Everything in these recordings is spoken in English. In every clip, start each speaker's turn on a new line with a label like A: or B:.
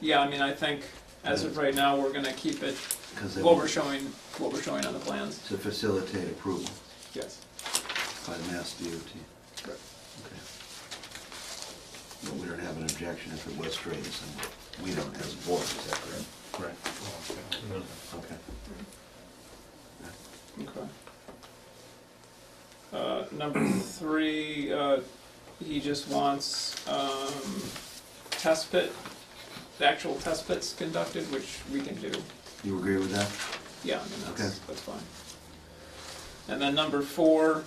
A: Yeah, I mean, I think as of right now, we're gonna keep it,
B: Because they
A: what we're
B: want
A: showing, what we're showing on the plans.
B: to facilitate approval
A: Yes.
B: by Mass DOT. Okay.
A: Correct.
B: But we don't have an objection if it was straight, and we don't as a board, is that correct?
C: Correct.
B: Okay.
A: Okay. Uh, number three, uh, he just wants, um, test pit, the actual test pits conducted, which we can do.
B: You agree with that?
A: Yeah, I mean, that's,
B: Okay.
A: that's fine. And then number four,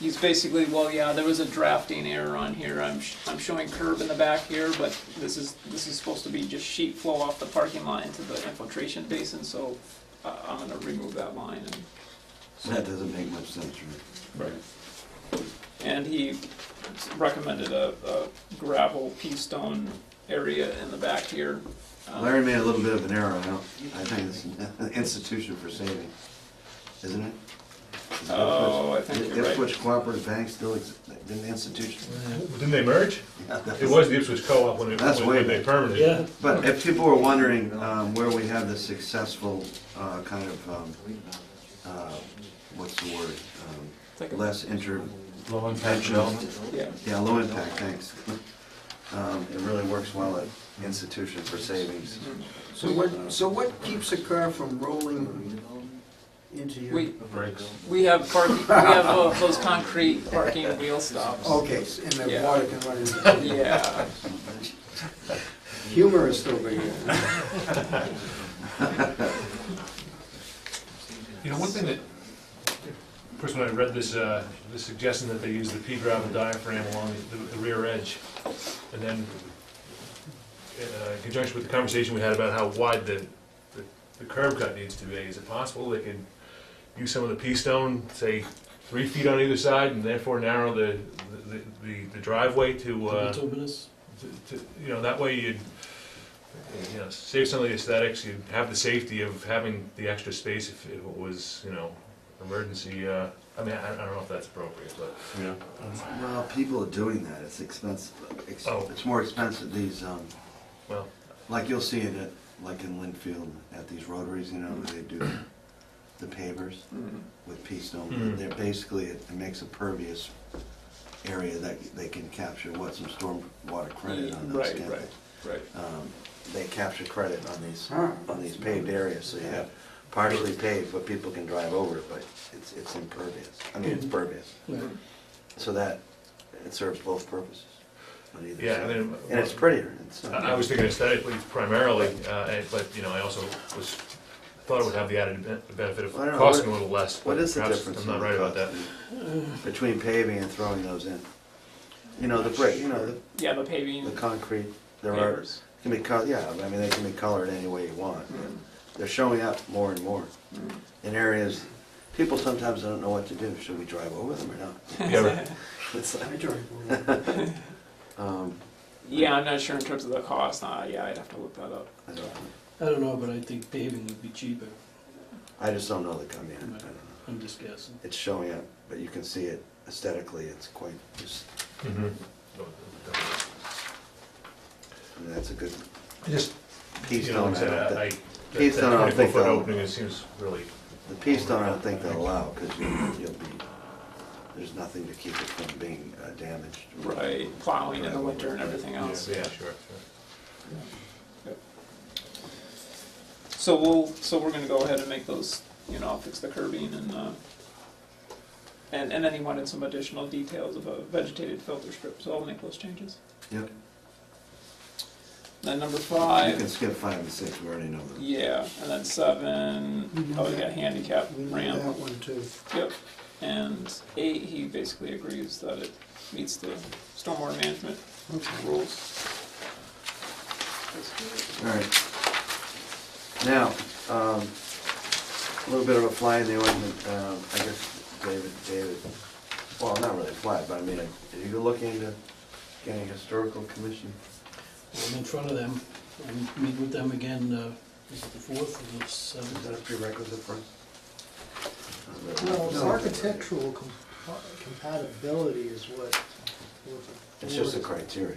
A: he's basically, well, yeah, there was a drafting error on here, I'm, sh- I'm showing curb in the back here, but this is, this is supposed to be just sheet flow off the parking lot into the infiltration basin, so uh, I'm gonna remove that line and.
B: That doesn't make much sense to me.
A: Right. And he recommended a, a gravel pea stone area in the back here. Um,
B: Larry made a little bit of an error, I don't, I think it's an institution for saving, isn't it? Is that
A: Oh, I
B: Ipswich-
A: think you're right.
B: Ipswich Cooperative Bank still, ex- didn't institution,
C: Didn't they merge? It was the Ipswich Co-op when it,
B: That's
C: when
B: way
C: when they
B: back.
C: permitted.
D: Yeah,
B: But if people were wondering um, where we have the successful uh, kind of, um, uh, what's the word? Um,
A: It's like a-
B: Less inter,
E: Low impact development.
A: Yeah,
B: yeah, low impact, thanks. Um, It really works well at institution for savings.
F: So what, so what keeps a car from rolling into your?
A: we,
E: Breaks.
A: we have parking, we have uh, those concrete parking wheel stops.
B: Oh.
F: Okay, s- and the
A: Yeah.
F: water can run into it.
A: Yeah,
F: Humor is still big here.
C: You know, one thing that, of course, when I read this, uh, the suggestion that they use the pea gravel diaphragm along the, the rear edge, and then uh, in conjunction with the conversation we had about how wide the, the- the curb cut needs to be, is it possible they could use some of the pea stone, say, three feet on either side, and therefore narrow the, the, the- the driveway to, uh,
D: two minutes.
C: to, to- you know, that way you'd, you know, save some of the aesthetics, you'd have the safety of having the extra space if if it was, you know, emergency, uh, I mean, I I don't know if that's appropriate, but.
E: Yeah.
B: Well, people are doing that, it's expensive, It's-
C: Oh.
B: it's more expensive, these, um,
C: Well,
B: like you'll see it at, like in Linfield, at these rotaries, you know, where they do the pavers.
A: Mm,
B: with pea stone,
C: Hmm.
B: they're basically, it makes a pervious area that they can capture what some storm water credit on those.
A: Right,
B: can't
A: right. right.
B: they? Um, They capture credit on these,
F: Huh.
B: on these paved areas, so you have partially paved, but people can drive over it, but it's, it's impervious, I mean,
C: Hmm.
B: it's pervious.
A: Mhm.
B: So that, it serves both purposes on either
C: yeah, I
B: side.
C: mean.
B: And it's prettier, it's,
C: I I was thinking aesthetically primarily, uh, and- but, you know, I also was, thought it would have the added ben- benefit of
B: I don't know,
C: costing a
B: what-
C: little less. but
B: what is the
C: perhaps
B: difference?
C: I'm
B: in
C: not
B: the
C: right about that.
B: cost Between paving and throwing those in. You know, the brick, you know, the
A: Yeah, the paving
B: The concrete, there are,
A: pavers.
B: can be col, yeah, I mean, they can be colored any way you want. but
A: Mm,
B: They're showing up more and more
A: mm.
B: in areas, people sometimes don't know what to do, should we drive over them or not?
C: Yeah, right.
B: It's
F: I
B: like,
F: drive over.
B: um,
A: Yeah, I'm not sure in terms of the cost, uh, yeah, I'd have to look that up.
B: I don't know.
D: I don't know, but I think paving would be cheaper.
B: I just don't know the, I mean, I don't know.
D: I'm just guessing.
B: It's showing up, but you can see it aesthetically, it's quite, just,
C: Mhm.
B: I mean, that's a good
C: Just,
B: piece
C: you know,
B: stone.
C: like
B: I don't
C: I said, I, I-
B: think-
C: that-
B: Keystone, I don't
C: that
B: think uh,
C: twenty-foot
B: they'll-
C: opening, it seems really
B: The piece stone, I don't think they'll allow, because you'll be, there's nothing to keep it from being uh, damaged.
A: Right, plowing in the winter and everything
C: Yeah,
A: else.
C: Yeah, sure, sure.
A: So we'll, so we're gonna go ahead and make those, you know, I'll fix the curbing and, uh, and, and then he wanted some additional details of a vegetated filter strip, so I'll make those changes.
B: Yep.
A: Then number
B: You can
A: five,
B: skip five and six, we already know them.
A: yeah, and then seven, oh, we got handicap
F: We need
A: ramp.
F: that one too.
A: Yep, and eight, he basically agrees that it meets the stormwater management rules.
B: All right. Now, um, a little bit of a fly in the ointment, um, I guess, David, David, well, not really a fly, but I mean, are you looking into getting a historical commission?
D: I'm in front of them. I meet with them again, uh, is it the fourth or the
B: Is that a
D: seventh?
B: prerequisite for us?
G: Well, architectural com- compatibility is what. what the
B: It's just a
G: board-
B: criteria.